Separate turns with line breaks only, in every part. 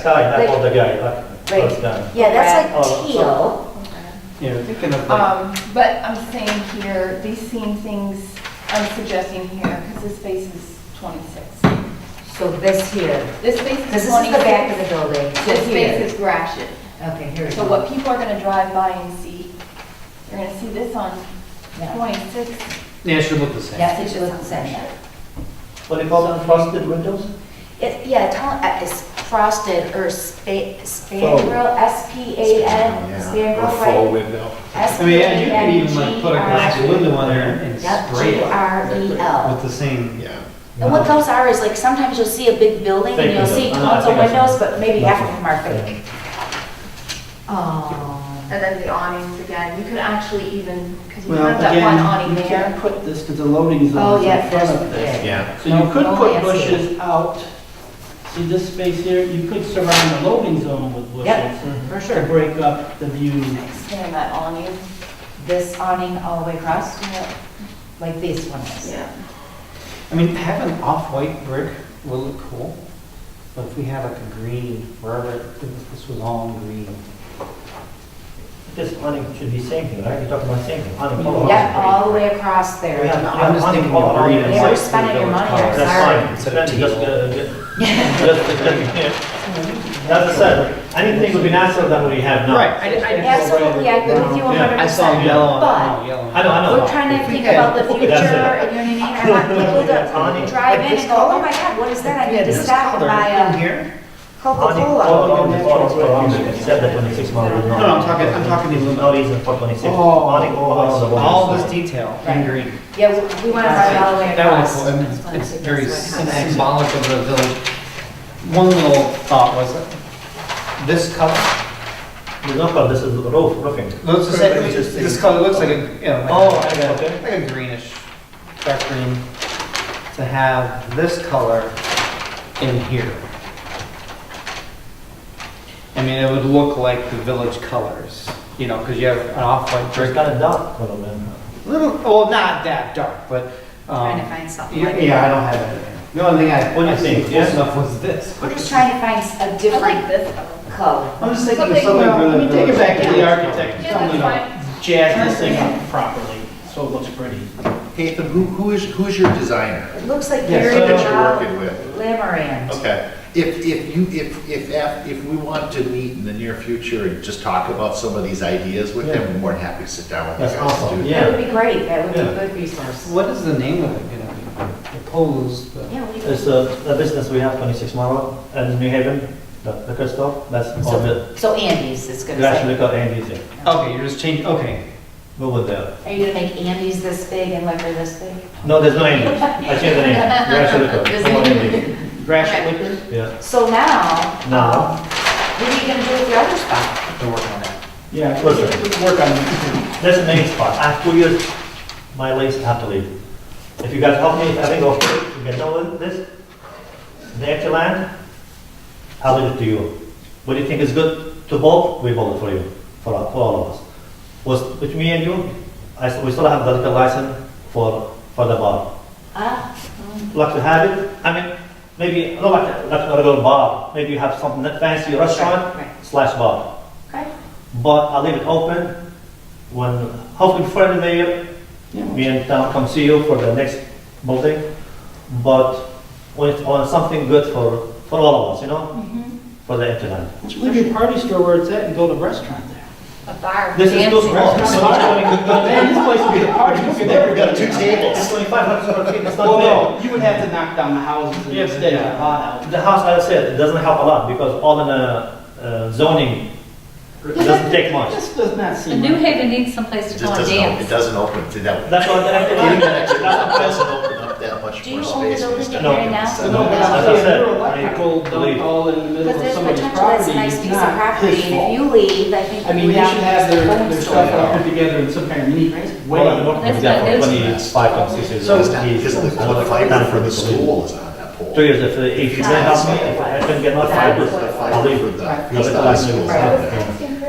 sky, not all the guy, like,
Right.
close down.
Yeah, that's
Oh,
like teal.
You know, thinking of like,
Um, but I'm saying here, these same things I'm suggesting here, because this space is 26.
So this here,
This space
because this
is 26.
is the back of the building. so
This
here.
space is grassy.
Okay, here it
So what
is.
people are gonna drive by and see, they're gonna see this on
Yeah.
26.
Yeah, it should look the same.
That's what you look saying.
what do you call them, frosted windows?
It, yeah, it's all- uh, it's frosted or spa- spandrel, S-P-A-N, spandrel, right?
window.
I mean, yeah, you could even like put a glass window on there and
E Yep,
spray it with
G-R-E-L.
the same.
Yeah.
And what those are is like, sometimes you'll see a big building and
Fake
you'll
windows.
see
I know, I
tons of
think I saw
windows, but maybe half of them are
Yeah.
fake. Oh,
And then the awnings again, you could actually even, because you
Well,
have that one
again,
awning
you
there.
can't put this because the loading
oh,
zone is
yeah,
in
there's
front
the
of this.
Yeah.
So you could
Oh,
put
yes, yes.
bushes out. See this space here, you could surround the loading zone with
Yep.
bushes
For
to
sure.
break up the view.
Expand that awning.
This awning all the way across,
Yeah.
like this one is.
Yeah.
I mean, having off-white brick will look cool, but if we have like a green, wherever, if this was all green.
This awning should be same thing, right? You're talking about same thing, awning. all
Yep,
around.
all the way across there.
We have-
I'm just
awning
thinking
all
of
around
green
the
and
Yeah,
site.
we're spending your money, I'm sorry.
That's
Instead
fine,
of
Then just,
teal.
uh, just, just, just, as I said, anything would be nicer than what we have now.
Absolutely, I agree with you
Yeah, I
100%.
I saw yellow on, yellow.
I know, I know.
But we're trying to think about the future,
That's it.
and you know what I mean? I want people to drive in and go, oh my God, what is that? I need to uh, stop and buy a
here?
Awning
Coca-Cola.
all
oh,
around the bottles for awning, except the oh. twenty-six model.
No, no, I'm talking, I'm talking the
No
aluminum.
reason for twenty-six.
Oh,
Awning oh. all around the bottles.
all this detail in
Right.
green.
Yeah, we- we want to ride all the way
That would
across.
look cool, and it's very
That's what happens.
symbolic of the village. One little thought was, this color,
You know, but this is roof, roofing.
looks, the same- this color looks like a, you know,
Oh,
like a-
okay.
like a greenish, dark green, to have this color in here. I mean, it would look like the village colors, you know, because you have an off-white
It's
brick,
kind of dark color, man.
little, well, not that dark, but. um,
Trying to find something
Yeah,
like
yeah, I
that.
don't have it. in there. The only thing I,
What do you
I
think,
think
yeah?
close enough was this.
We're just trying to find a
I like
different
this color.
color.
I'm just
thinking of Something- something
well, really let me take it back to the
Yeah.
architect.
Yeah, that's
You know,
fine.
Jazz this thing up properly, so it looks pretty.
Hey, but who, who is, who's your designer
It looks like
Yeah,
Gary
so-
that you're
Lamorand.
working with? Okay. If, if you, if, if, af- if we want to meet in the near future and just talk about some of these ideas with them, we're more than happy to sit down with
That's
you guys
awesome.
and do
Yeah.
that.
That would be great, that would be
Yeah.
a good resource.
What is the name of it gonna be? Proposed, but.
Yeah, what do you-
It's
uh,
a, a business we have, 26 Mile Road, in New Haven, the liquor store, that's all the,
So- So Andy's is going to
that's
say.
liquor and easy.
Okay, you're just changing, okay.
We were there.
Are you going to make Andy's this big and Liquor this big?
No, there's no Andy's, I changed the name, Grash Liquor, no more Andy's.
Grash liquor?
Yeah,
So now,
now,
what are you going to do with the other spot?
Have to work on that.
Yeah,
Close it.
work on it.
that's the main spot, I have two years, my legs have to leave. If you guys help me, I think, okay, you get done with this, the extra land, I'll leave it to you. What do you think is good to both, we both for you, for, for all of us. Was, with me and you, I, s- we still have the liquor license for, for the bar.
Uh,
Ah,
like to have it. I mean, maybe not like, like a regular bar. Maybe you have something that fancy restaurant
Right, right.
slash bar.
okay.
But I leave it open. When hopefully before the mayor, me and town come see you for the next building. But when it's on something good for for all of us, you know,
Mm-hmm.
for the internet.
Leave your party store where it's at and build a restaurant there.
A bar.
This is too
dancing.
small. It's
Man, this place would be a party. You could never
We've got two tables.
2,500 square feet. It's not
Well,
big.
no, you would have to knock down the houses and
Yes,
extend
yeah.
the lot out.
The house, as I said, it doesn't help a lot because all in the uh, zoning doesn't take much.
This does not
The
seem
New
right.
Haven needs someplace
It
to
just
go and
doesn't, op- it
dance.
doesn't open to that.
That's what I
It
think.
doesn't open up that much
Do
more
you own the
space.
building that
Mr.
you're
Duncan.
in
now?
So-
But no, but I'm
That's
saying,
what I said.
your
I
electrical
believe.
dump all in the
But
middle of
there's
somebody's
potential, that's
property
a nice
is
piece of
not
property,
his
and if
fault.
you leave, I think.
I mean,
we
they
have
should have their,
home
their
store.
stuff all put together in some kind of neat way.
Well,
That's
yeah,
not
for
his.
Twenty-five or six years.
So
old,
it's not,
he's-
because the
I don't know,
the fiber
done
for the
people leave.
school is on that pole.
Two years, if, if you don't help me, if I can get my fiber,
Fiber for the
I'll leave it.
because the high school is on there.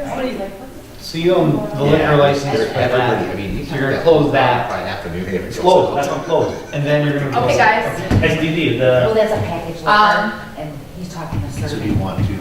Somebody's like, "What
So you own the
Yeah,
liquor license for
they're- everybody, I
that,
mean, you
So you're gonna
can-
close that.
Right after New Haven.
It's
goes
closed,
up.
that's not closed.
and then you're gonna.
the-" Okay,
close it.
guys.
SDD,
Well,
the,
that's a package,
Um,
liquor, and he's talking to
So do you
certain.
want to